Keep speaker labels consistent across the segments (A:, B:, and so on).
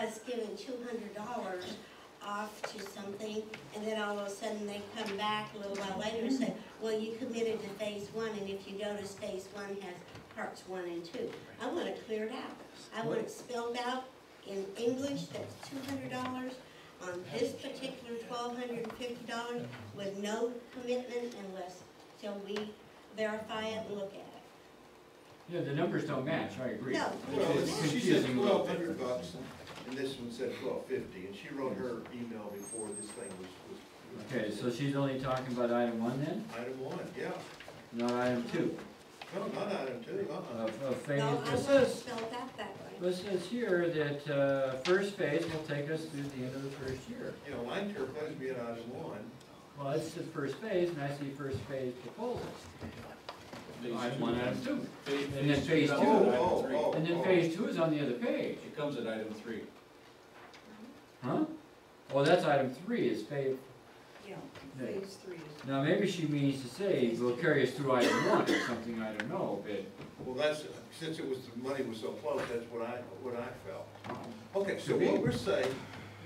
A: us giving two hundred dollars off to something, and then all of a sudden they come back a little while later and say, well, you committed to phase one, and if you go to phase one, has parts one and two. I want it cleared out. I want it spelled out in English, that's two hundred dollars on this particular twelve hundred and fifty dollars with no commitment unless, till we verify it and look at it.
B: Yeah, the numbers don't match, I agree.
A: No.
C: Well,
B: It's
C: she said
B: confusing a little
C: twelve
B: bit.
C: hundred bucks, and this one said twelve fifty, and she wrote her email before this thing was, was.
B: Okay, so she's only talking about item one then,
C: Item one, yeah,
B: not item two
C: no, not item two, uh-uh.
B: of, of phase.
A: No, I
B: It
A: want it
B: says,
A: spelled out that way.
B: it says here that, uh, first phase will take us through the end of the first year.
C: You know, mine took place being item one,
B: Well, it's the first phase, and I see first phase proposals.
D: Phase
B: Item
D: two.
B: one, item two.
D: Phase-
B: And then phase
D: comes
B: two.
D: at item
C: Oh,
D: three.
C: oh,
B: And then phase two is on the other page,
D: It comes at item three.
B: huh? Well, that's item three is phase,
E: Yeah,
B: Yeah.
E: phase three is,
B: now maybe she means to say, will carry us through item one or something, I don't know, but
C: well, that's, since it was, the money was so close, that's what I, what I felt. Okay, so
B: Could be.
C: what we're saying,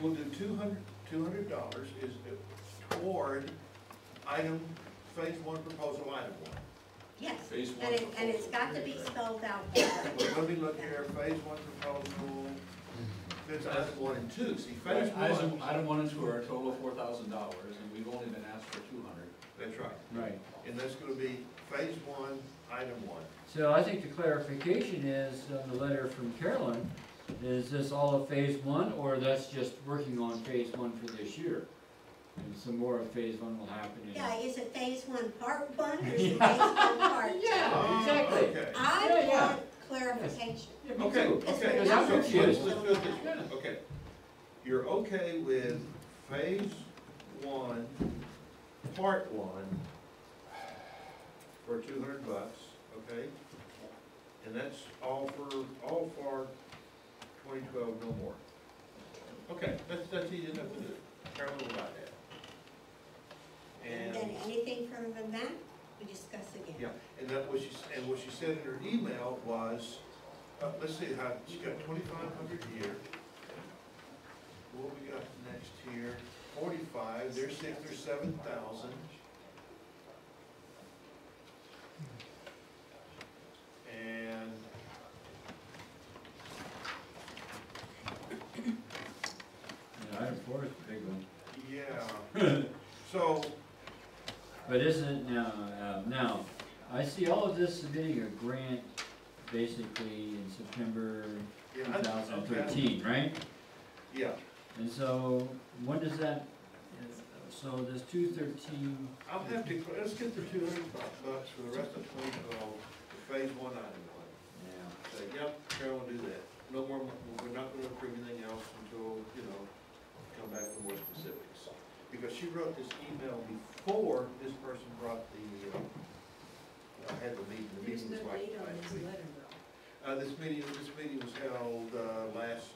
C: we'll do two hundred, two hundred dollars is toward item, phase one proposal, item one.
A: Yes,
D: Phase one.
A: and it, and it's got to be spelled out that way.
C: Well, let me look here, phase one proposal, that's item one and two, see, phase
D: Item,
C: one.
D: item one and two are a total of four thousand dollars, and we've only been asked for two hundred.
C: That's right,
B: Right,
C: and that's gonna be phase one, item one.
B: so I think the clarification is, on the letter from Carolyn, is this all of phase one, or that's just working on phase one for this year? And some more of phase one will happen in.
A: Yeah, is it phase one part one or is it phase one part two?
B: Yeah, exactly.
C: Okay,
A: I
B: Yeah, yeah.
A: want clarification.
B: Yeah, me
C: okay,
B: too.
C: okay.
B: Because I'm
C: so let's-
B: confused.
C: let's do it this way. Okay, you're okay with phase one, part one, for two hundred bucks, okay? And that's all for, all for twenty twelve, no more. Okay, that's, that's easy enough to do, Carolyn will write that.
A: And then anything further than that, we discuss again.
C: Yeah, and that was, and what she said in her email was, uh, let's see, how, she got twenty-five hundred here. What we got next here, forty-five, there's six or seven thousand. And.
B: Yeah, item four is the big one.
C: Yeah, so,
B: But isn't, now, uh, now, I see all of this submitting a grant basically in September two
C: yeah, I-
B: thousand thirteen, right?
C: yeah,
B: And so, when does that, so this two thirteen,
C: I'll have to, let's get the two hundred bucks for the rest of twenty twelve, phase one item one.
B: yeah,
C: Say, yep, Carol will do that. No more, mo- we're not gonna approve anything else until, you know, come back with more specifics. Because she wrote this email before this person brought the, uh, had the meeting, the
E: there's
C: meeting was
E: no
C: like
E: date on
C: last
E: this
C: week.
E: letter though.
C: Uh, this meeting, this meeting was held, uh, last,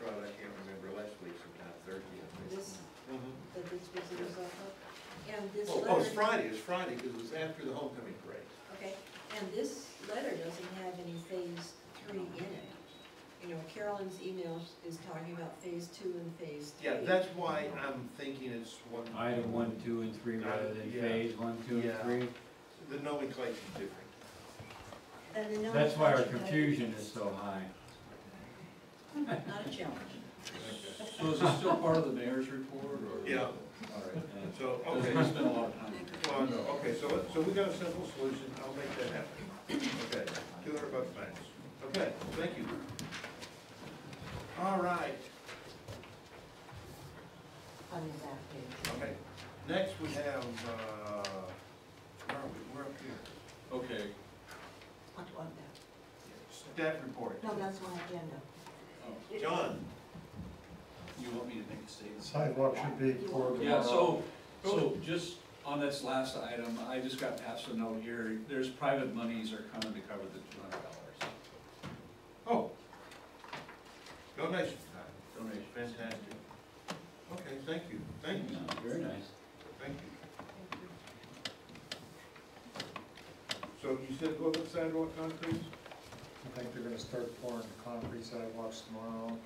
C: Friday, I can't remember, last week sometime, Thursday, I think.
E: This,
C: Mhm.
E: that this was the result of, and this
C: Oh, oh, it's
E: letter,
C: Friday, it's Friday, because it was after the homecoming parade.
E: okay, and this letter doesn't have any phase three in it. You know, Carolyn's email is talking about phase two and phase three.
C: Yeah, that's why I'm thinking it's one.
B: item one, two, and three rather than
C: Yeah.
B: phase one, two, and
C: Yeah.
B: three?
C: The nomenclature's different.
A: Then the
B: That's why our
A: nomenclature-
B: confusion is so high.
E: Not a challenge.
D: So is this still part of the mayor's report, or?
C: Yeah.
D: All right.
C: So, okay,
D: Doesn't spend a lot of time.
C: well, no, okay, so, so we got a simple solution, I'll make that happen. Okay, two hundred bucks max. Okay, thank you. All right,
E: On the back page.
C: okay, next we have, uh, where are we, we're up here,
D: Okay,
E: What, on that?
C: staff report.
E: No, that's my agenda.
C: John,
D: oh, you want me to make a statement?
F: Sidewalk should be poured
D: Yeah,
F: tomorrow.
D: so, so just on this last item, I just got passed a note here, there's private monies are coming to cover the two hundred dollars
C: oh, donation time,
D: donation.
C: fantastic. Okay, thank you, thank you,
B: Very nice.
C: thank you. So you said go up the sidewalk concrete?
F: I think they're gonna start pouring concrete sidewalks tomorrow.